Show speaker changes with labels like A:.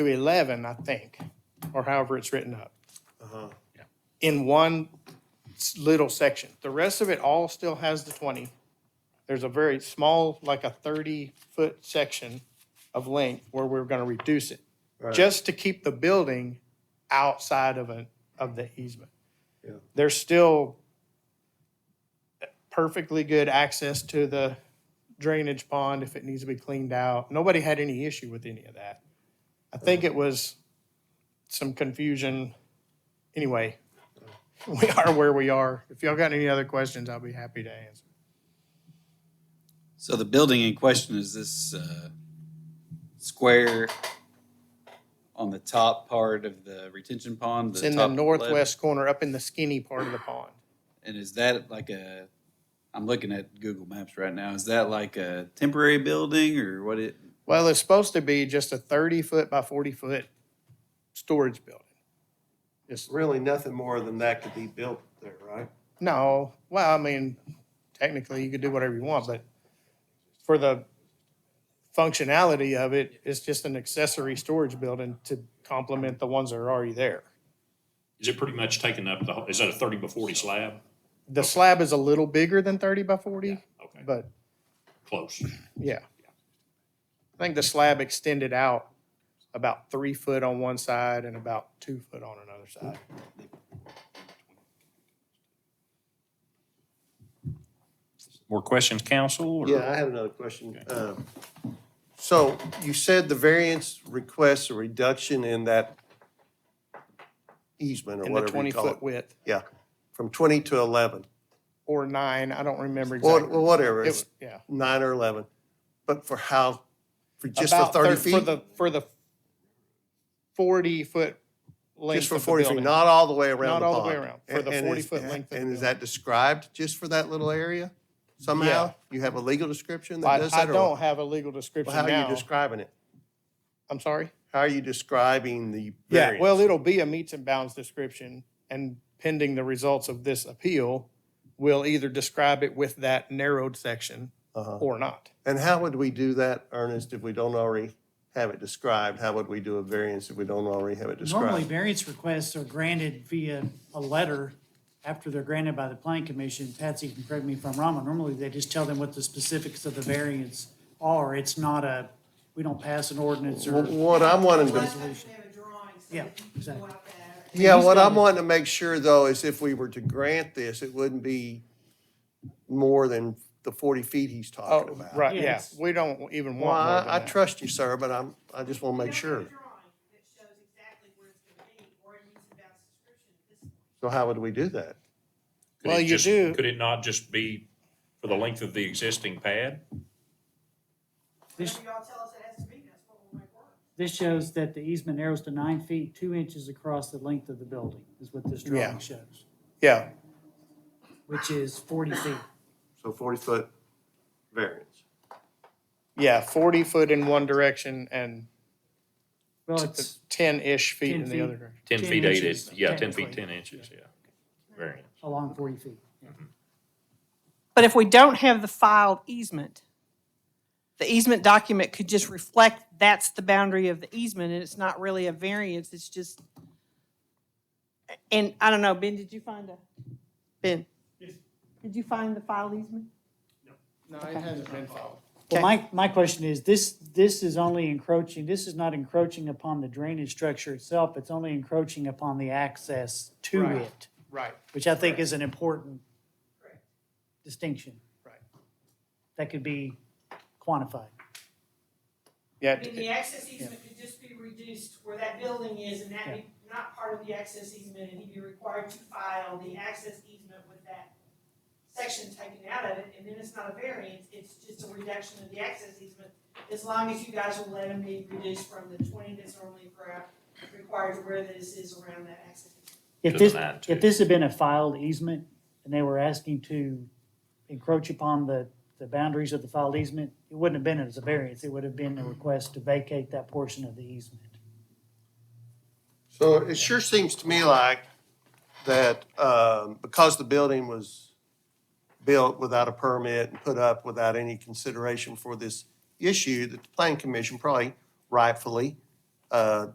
A: to 11, I think, or however it's written up.
B: Uh-huh.
A: In one s- little section. The rest of it all still has the 20. There's a very small, like a 30-foot section of length where we're going to reduce it,
B: Right.
A: just to keep the building outside of an, of the easement.
B: Yeah.
A: There's still perfectly good access to the drainage pond if it needs to be cleaned out. Nobody had any issue with any of that. I think it was some confusion. Anyway, we are where we are. If y'all got any other questions, I'll be happy to answer.
C: So the building in question is this uh, square on the top part of the retention pond?
A: It's in the
C: top left?
A: northwest corner, up in the skinny part of the pond.
C: And is that like a, I'm looking at Google Maps right now, is that like a temporary building or what it?
A: Well, it's supposed to be just a thirty foot by forty foot storage building. Just,
B: Really, nothing more than that could be built there, right?
A: no, well, I mean, technically you could do whatever you want, but for the functionality of it, it's just an accessory storage building to complement the ones that are already there.
D: Is it pretty much taking up the, whole- is that a thirty by forty slab?
A: The slab is a little bigger than thirty by forty,
D: Okay,
A: but
D: close.
A: yeah. I think the slab extended out about three foot on one side and about two foot on another side.
B: Mm-hmm.
D: More questions, council? or-
B: Yeah, I have another question. Um, So you said the variance requests a reduction in that easement or
A: In the
B: whatever
A: twenty
B: you call it.
A: foot width
B: Yeah, from 20 to 11,
A: or nine, I don't remember
B: or
A: exactly.
B: or whatever,
A: It-
B: it's
A: Yeah.
B: nine or 11. But for how, for just for
A: About
B: 30
A: thir- For
B: feet?
A: the, for the forty foot
B: Just
A: length
B: for
A: of the
B: 40 feet,
A: building.
B: not all the way
A: Not
B: around the pond?
A: all the way around, for
B: And-
A: the
B: and
A: 40
B: is-
A: foot length of
B: And
A: the
B: is that described just for that little area somehow? You have a legal description that
A: I,
B: does
A: I
B: that? or
A: don't have a legal description
B: Well, how are you
A: now.
B: describing it?
A: I'm sorry?
B: How are you describing the
A: Yeah,
B: variance?
A: well, it'll be a meets and bounds description, and pending the results of this appeal, we'll either describe it with that narrowed section
B: Uh-huh.
A: or not.
B: And how would we do that, Ernest, if we don't already have it described? How would we do a variance if we don't already have it
E: Normally,
B: described?
E: variance requests are granted via a letter after they're granted by the planning commission. Patsy can correct me if I'm wrong, but normally they just tell them what the specifics of the variance are. It's not a, we don't pass an ordinance or.
B: Wh- What I'm wanting
F: Well, I
B: to,
F: think they have a drawing, so
E: Yeah,
F: that you can go
E: exactly.
F: out there.
B: yeah, what I'm wanting to make sure though is if we were to grant this, it wouldn't be more than the 40 feet he's
A: Oh,
B: talking about.
A: right, yeah,
E: Yes.
A: we don't even
B: Well,
A: want more than
B: I, I
A: that.
B: trust you, sir, but I'm, I just want to make
F: They'll have
B: sure.
F: a drawing that shows exactly where it's gonna be, or it meets about description at this point.
B: So how would we do that?
D: Could
A: Well,
D: it
A: you
D: just-
A: do-
D: Could it not just be for the length of the existing pad?
E: This,
F: Whatever y'all tell us it has to be, that's what we'll make work.
E: this shows that the easement narrows to nine feet, two inches across the length of the building, is what this
A: Yeah.
E: drawing shows,
A: Yeah,
E: which is forty feet.
B: So 40-foot variance.
A: yeah, forty foot in one direction and
E: Well, it's
A: ten-ish feet
E: 10
A: in
E: feet.
A: the other direction.
D: Ten
E: 10
D: feet eight
E: inches,
D: is, yeah, ten feet
E: technically.
D: ten inches, yeah. Variance.
E: along forty feet.
G: But if we don't have the filed easement, the easement document could just reflect that's the boundary of the easement, and it's not really a variance, it's just, and I don't know, Ben, did you find a, Ben? Did you find the filed easement?
A: No, it hasn't been filed.
E: Well,
G: Okay.
E: my, my question is, this, this is only encroaching, this is not encroaching upon the drainage structure itself, it's only encroaching upon the access to
A: Right.
E: it,
A: Right,
E: which I think is an important
F: Correct.
E: distinction
A: right.
E: that could be quantified.
A: Yeah,
F: I mean, the access easement could just be reduced where that building is, and that be not part of the access easement, and he'd be required to file the access easement with that section taken out of it, and then it's not a variance, it's just a reduction of the access easement, as long as you guys will let him be reduced from the twenty that's normally required- required to where this is around that access. easement.
E: If
D: To
E: this,
D: the nine, too.
E: if this had been a filed easement and they were asking to encroach upon the, the boundaries of the filed easement, it wouldn't have been as a variance, it would have been a request to vacate that portion of the easement.
B: So it sure seems to me like that um, because the building was built without a permit and put up without any consideration for this issue, that the planning commission probably rightfully uh,